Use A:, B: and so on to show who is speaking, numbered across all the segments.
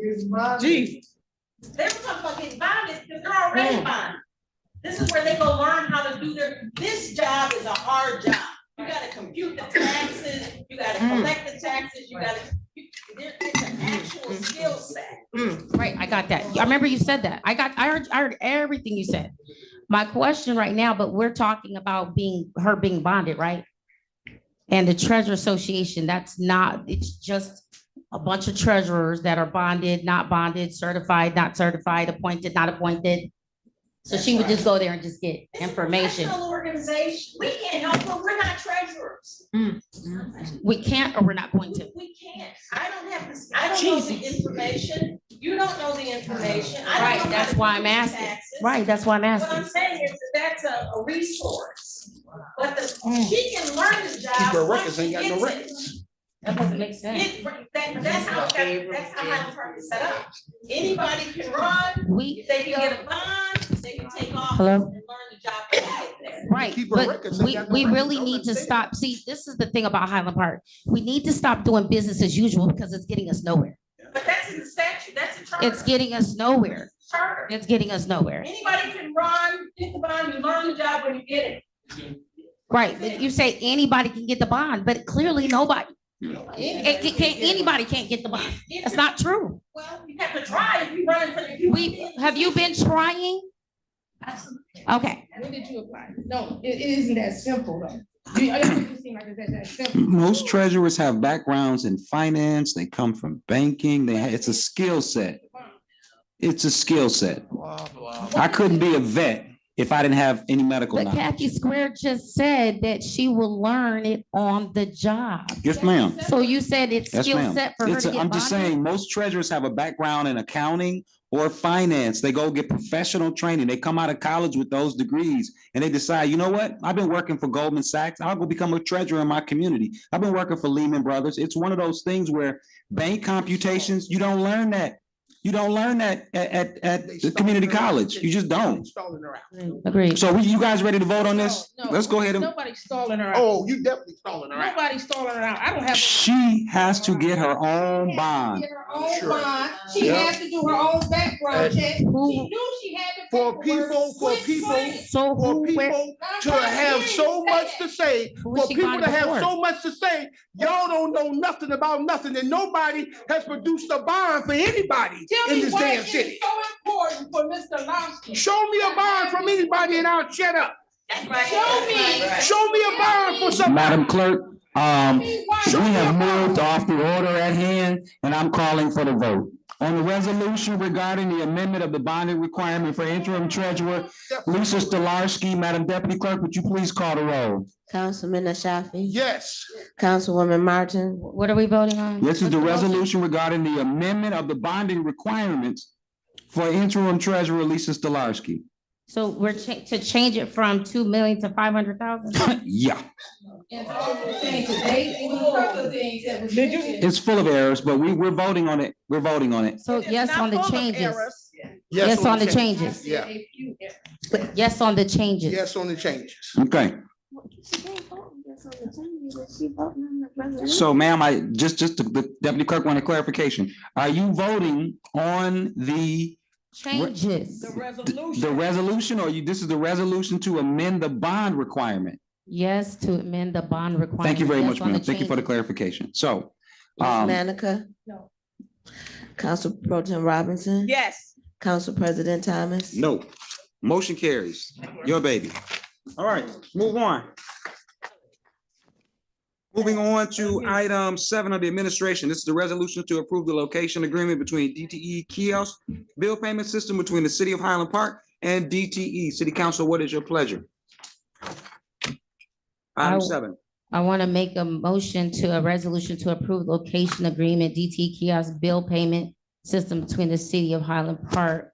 A: It's my.
B: Gee.
C: They were talking about getting bonded, because they're already
D: Mm.
C: bonded. This is where they go learn how to do their, this job is a hard job. You gotta compute the taxes, you gotta
D: Mm.
C: collect the taxes, you gotta, you- there- it's an actual skill set.
D: Mm, right, I got that. I remember you said that. I got, I heard, I heard everything you said. My question right now, but we're talking about being, her being bonded, right? And the treasure association, that's not, it's just a bunch of treasurers that are bonded, not bonded, certified, not certified, appointed, not appointed. So she would just go there and just get
C: It's a
D: information.
C: professional Organization, we can't help her, we're not treasurers.
D: Mm. We can't, or we're not going to.
C: We can't, I don't have, this- I don't know the information, you don't know the information. I don't
D: Right,
C: know how
D: that's
C: to
D: why
C: do
D: I'm
C: the
D: asking.
C: taxes.
D: Right, that's why I'm
C: What I'm
D: asking.
C: saying is that that's a, a resource, but the,
D: Mm.
C: she can learn the job.
E: Keep her
C: once
E: records,
C: she
E: ain't got no
C: gets it.
E: records.
D: That doesn't make sense.
C: It- that- that's how, that- that's how Highland Park is set up. Anybody can run,
D: We,
C: if they can get a bond, they can take off
D: Hello?
C: and learn the job when they get there.
D: Right,
E: keep her
D: but
E: records, they
D: we,
E: got no
D: we
E: records,
D: really
E: don't
D: need to
E: let 'em
D: stop, see, this is the thing about Highland Park. We need to stop doing business as usual because it's getting us nowhere.
C: But that's in the statute, that's a charter.
D: It's getting us nowhere.
C: Charter.
D: It's getting us nowhere.
C: Anybody can run, get the bond, you learn the job when you get it.
D: Right, but you say anybody can get the bond, but clearly nobody, it ca- can't, anybody can't get the bond.
C: If
D: That's
C: you-
D: not true.
C: Well, you have to try if you run for the. if you-
D: We, have you been trying? Okay,
A: When did you apply? No, it, it isn't that simple though. You, I don't think it seem like it's that, that simple.
F: Most treasurers have backgrounds in finance, they come from banking, they, ha- it's a skill set. It's a skill set. I couldn't be a vet if I didn't have any medical
D: but
F: knowledge.
D: Kathy Square just said that she will learn it on the job.
F: Yes, ma'am.
D: So you said it's
F: Yes,
D: skill
F: ma'am.
D: set for her
F: It's
D: to
F: a-
D: get
F: I'm just
D: bonded?
F: saying, most treasurers have a background in accounting or finance. They go get professional training. They come out of college with those degrees and they decide, you know what? I've been working for Goldman Sachs. I'll go become a treasurer in my community. I've been working for Lehman Brothers. It's one of those things where bank computations, you don't learn that. You don't learn that at, at, at the community college. You just don't.
E: Stalling her out.
D: Agreed.
F: So we- you guys ready to vote on this?
A: No, no.
F: Let's go ahead and,
A: Nobody's stalling her out.
E: Oh, you definitely stalling her out.
A: Nobody's stalling her out. I don't have.
F: she has to get her own bond.
A: Get her own
E: Sure.
A: bond. She
E: Yeah.
A: has to do her own background check. She
D: Who,
A: knew she had the
E: For
A: paperwork.
E: people, for
A: Quit
E: people-
A: playing.
D: so
E: For
D: who, where?
E: people
A: Not
E: to
A: trying
E: have
A: hear you
E: so
A: say
E: much
A: that.
E: to say,
D: Who was
E: for
D: she
E: people to
D: bonded
E: have
D: for?
E: so much to say, y'all don't know nothing about nothing and nobody has produced a bond for anybody
A: Tell
E: in
A: me
E: this
A: why
E: damn
A: it is
E: city.
A: so important for Mr. Lobster.
E: Show me a bond from anybody and I'll shut up.
C: That's right.
A: Show me.
C: That's
E: Show me a bond for somebody.
F: Madam Clerk, um,
A: Me why-
F: We have moved off the order at hand, and I'm calling for the vote. On the resolution regarding the amendment of the bonding requirement for interim treasurer, Lisa Stolarski, Madam Deputy Clerk, would you please call the roll?
G: Councilman Ashafi,
E: Yes,
G: Councilwoman Martin,
D: What are we voting on?
F: This is the
D: What's motion?
F: resolution regarding the amendment of the bonding requirements for interim treasurer, Lisa Stolarski.
D: So we're cha- to change it from two million to five hundred thousand?
F: Yeah,
A: And all the things that they, even all the things that was mentioned.
F: it's full of errors, but we, we're voting on it. We're voting on it.
D: So yes on the changes.
E: yes.
D: Yes on the
E: change.
A: I
D: changes.
A: said
E: Yeah.
A: a few errors.
D: Yes on the changes.
E: Yes on the changes.
F: Okay, so ma'am, I, just, just, the Deputy Clerk wanted clarification. Are you voting on the
D: Changes.
F: The resolution, or you, this is the resolution to amend the bond requirement?
D: Yes to amend the bond requirement.
F: Thank you very
D: Yes
F: much,
D: on
F: ma'am. Thank you for the
D: changes.
F: clarification. So,
G: Ms.
F: um,
G: Manica.
A: No.
G: Council Pro Tem Robinson,
A: Yes.
G: Council President Thomas.
F: no, motion carries. Your baby. All right, move on. Moving on to item seven of the administration. This is the resolution to approve the location agreement between DTE kiosk bill payment system between the city of Highland Park and DTE. City Council, what is your pleasure?
D: I-
F: Item seven.
D: I want to make a motion to a resolution to approve location agreement DT kiosk bill payment system between the city of Highland Park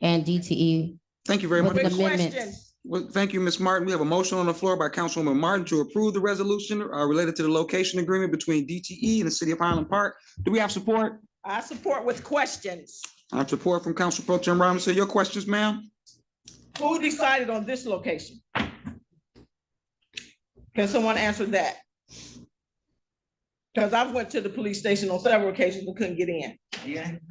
D: and E DTE.
F: Thank you very
D: with
F: much. Ms.
D: amendments.
F: Well, thank you, Ms. Martin. We have a motion on the floor by Councilwoman Martin to approve the resolution uh, related to the location agreement between DTE and the City of Highland Park. Do we have support?
H: I support with questions.
F: I have support from Council Pro Tim Robinson. Your questions, ma'am?
H: Who decided on this location? Can someone answer that? Because I've went to the police station on several occasions and couldn't get in.